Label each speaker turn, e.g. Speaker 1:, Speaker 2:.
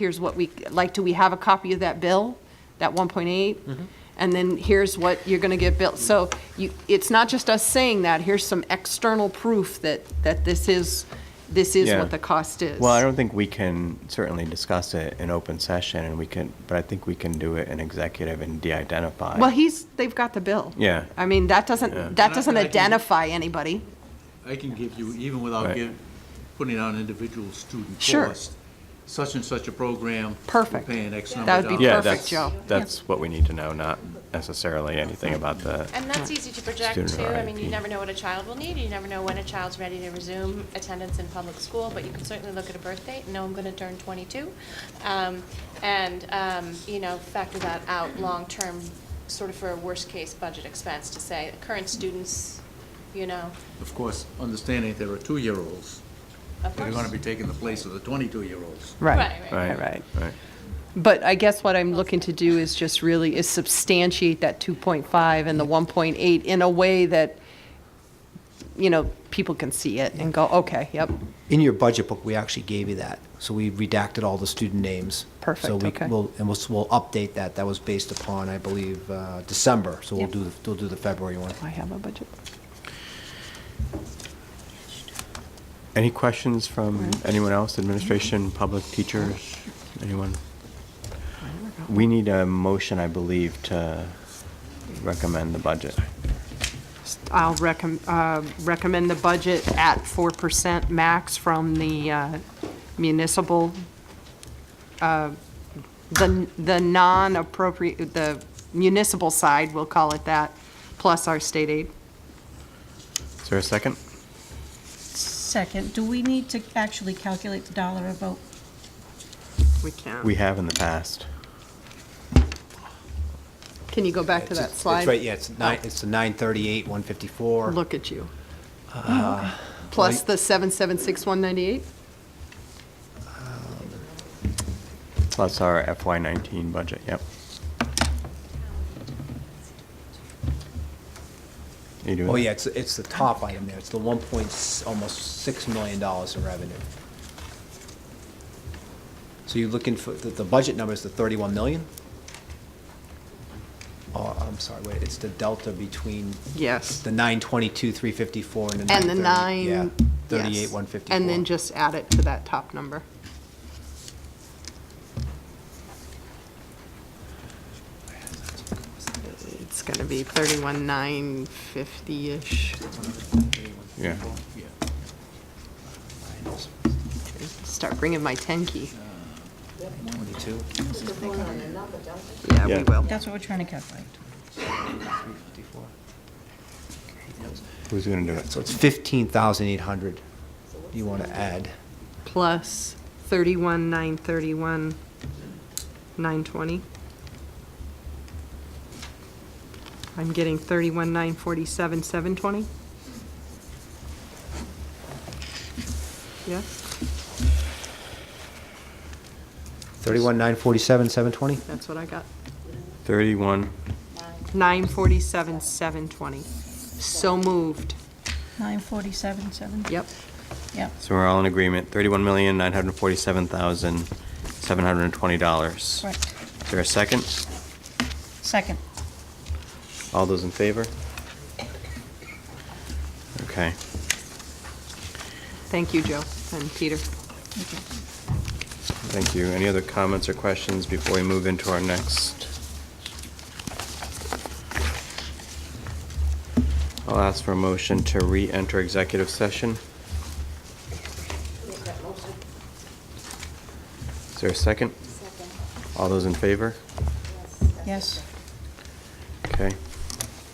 Speaker 1: here's what we, like, do we have a copy of that bill, that 1.8?
Speaker 2: Mm-hmm.
Speaker 1: And then here's what you're going to get built. So you, it's not just us saying that, here's some external proof that, that this is, this is
Speaker 2: Yeah.
Speaker 1: what the cost is.
Speaker 2: Well, I don't think we can certainly discuss it in open session, and we can, but I think we can do it in executive and de-identify.
Speaker 1: Well, he's, they've got the bill.
Speaker 2: Yeah.
Speaker 1: I mean, that doesn't, that doesn't
Speaker 3: And I- and I can-
Speaker 1: identify anybody.
Speaker 3: I can give you, even without
Speaker 2: Right.
Speaker 3: give, putting on individual student
Speaker 1: Sure.
Speaker 3: cost, such and such a program. we're
Speaker 1: Perfect.
Speaker 3: Paying X number
Speaker 1: That
Speaker 3: of
Speaker 1: would be
Speaker 3: dollars.
Speaker 1: Yeah,
Speaker 2: Yeah,
Speaker 1: Perfect,
Speaker 2: that's,
Speaker 1: Joe.
Speaker 2: that's what we need to know, not necessarily anything about the,
Speaker 4: And that's easy to project
Speaker 2: Student
Speaker 4: too. I mean, you
Speaker 2: RIP.
Speaker 4: never know what a child will need. You never know when a child's ready to resume attendance in public school, but you can certainly look at a birth date and know I'm going to turn 22. Um, And, um, you know, factor that out long-term, sort of for a worst-case budget expense to say, current students, you know,
Speaker 3: Of course, understanding there are two-year-olds
Speaker 4: of
Speaker 3: that are going
Speaker 4: course.
Speaker 3: to be taking the place of the 22-year-olds.
Speaker 4: Right, right.
Speaker 2: right?
Speaker 1: Right.
Speaker 2: Right.
Speaker 1: But I guess what I'm looking to do is just really, is substantiate that 2.5 and the 1.8 in a way that, you know, people can see it and go, okay, yep,
Speaker 5: In your budget book, we actually gave you that, so we redacted all the student names. So
Speaker 1: Perfect,
Speaker 5: we
Speaker 1: okay.
Speaker 5: will, and we'll, we'll update that, that was based upon, I believe, uh, December, so we'll
Speaker 1: Yep.
Speaker 5: do, the- we'll do the February one.
Speaker 1: I have a budget.
Speaker 2: Any questions from anyone else, administration, public, teachers, anyone? We need a motion, I believe, to recommend the budget.
Speaker 6: I'll recommend, recommend the budget at 4% max from the uh, municipal, uh, the, the non-appropriate, the municipal side, we'll call it that, plus our state aid.
Speaker 2: Is there a second?
Speaker 7: Second, do we need to actually calculate the dollar amount?
Speaker 6: We can.
Speaker 2: We have in the past.
Speaker 1: Can you go back to
Speaker 5: It's-
Speaker 1: that
Speaker 5: it's-
Speaker 1: slide? Oh.
Speaker 5: It's right, yeah, it's nine, it's the nine thirty-eight, one fifty-four.
Speaker 1: Look at you. Plus
Speaker 5: Uh, like-
Speaker 1: the 776,198?
Speaker 2: Plus our FY19 budget, yep. You doing
Speaker 5: Oh,
Speaker 2: that?
Speaker 5: yeah, it's, it's the top item there, it's the one point, s- almost six million dollars in revenue. So you're looking for, the, the budget number is the thirty-one million? Oh, I'm sorry, wait, it's the delta between
Speaker 6: Yes.
Speaker 5: the nine twenty-two, three fifty-four, and the nine
Speaker 6: And
Speaker 5: thirty.
Speaker 6: the nine.
Speaker 5: Yeah,
Speaker 6: yes.
Speaker 5: thirty-eight, one fifty-four.
Speaker 6: And then just add it to that top number. It's going to be 31,950-ish.
Speaker 2: Yeah.
Speaker 6: Start bringing my 10 key.
Speaker 5: Twenty-two.
Speaker 6: Yeah,
Speaker 2: Yeah.
Speaker 6: we will.
Speaker 7: That's what we're trying to calculate.
Speaker 2: Who's going to do it?
Speaker 5: So it's fifteen thousand eight hundred you want to add.
Speaker 6: Plus 31,931, 920. I'm getting 31,947, 720. Yes,
Speaker 5: Thirty-one, nine forty-seven, seven twenty?
Speaker 6: that's what I got.
Speaker 2: 31.
Speaker 6: 947, 720. So moved.
Speaker 7: 947, 7?
Speaker 6: Yep.
Speaker 7: Yep.
Speaker 2: So we're all in agreement, $31,947,720.
Speaker 7: Correct.
Speaker 2: Is there a second?
Speaker 7: Second.
Speaker 2: All those in favor? Okay.
Speaker 6: Thank you, Joe and Peter.
Speaker 2: Thank you. Any other comments or questions before we move into our next? I'll ask for a motion to re-enter executive session. Is there a second? All those in favor?
Speaker 7: Yes.
Speaker 2: Okay.